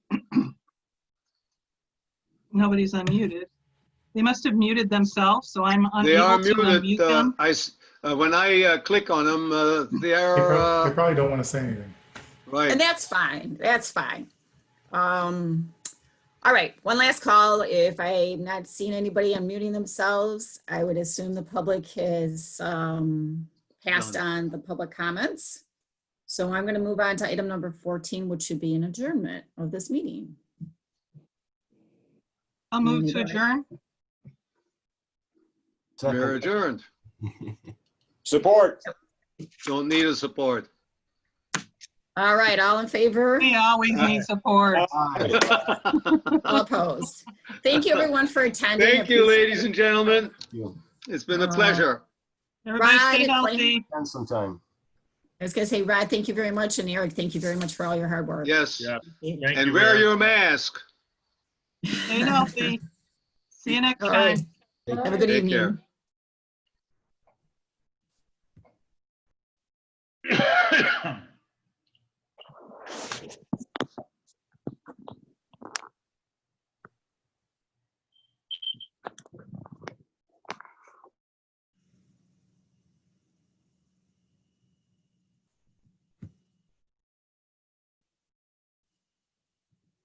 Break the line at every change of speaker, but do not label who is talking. nobody's unmuted. They must have muted themselves, so I'm
They are
unable to unmute
muted. uh,
them.
I, s- uh, when I uh, click on them, uh, they
They
are,
prob- they
uh,
probably don't want to say anything.
right.
And that's fine, that's fine. Um, all right, one last call. If I've not seen anybody unmuting themselves, I would assume the public has, um, passed on the public comments. So I'm gonna move on to item number fourteen, which should be an adjournment of this meeting.
I'll move
Muted,
to
right.
adjourn.
We're adjourned.
Support.
Don't need a support.
All right, all in favor?
We always need support.
All opposed. Thank you, everyone, for attending.
Thank you,
Appreciate
ladies and gentlemen.
you.
It's been a
Uh,
pleasure.
Everybody stay
Right, Blaine.
healthy.
Spend some time.
it. I was gonna say, Rod, thank you very much, and Eric, thank you very much for all your hard work.
Yes.
Yeah.
Thank
Thank
And
you,
wear
Eric.
your mask.
Stay healthy. See you next
All right.
time.
Have a good
Take care.
evening.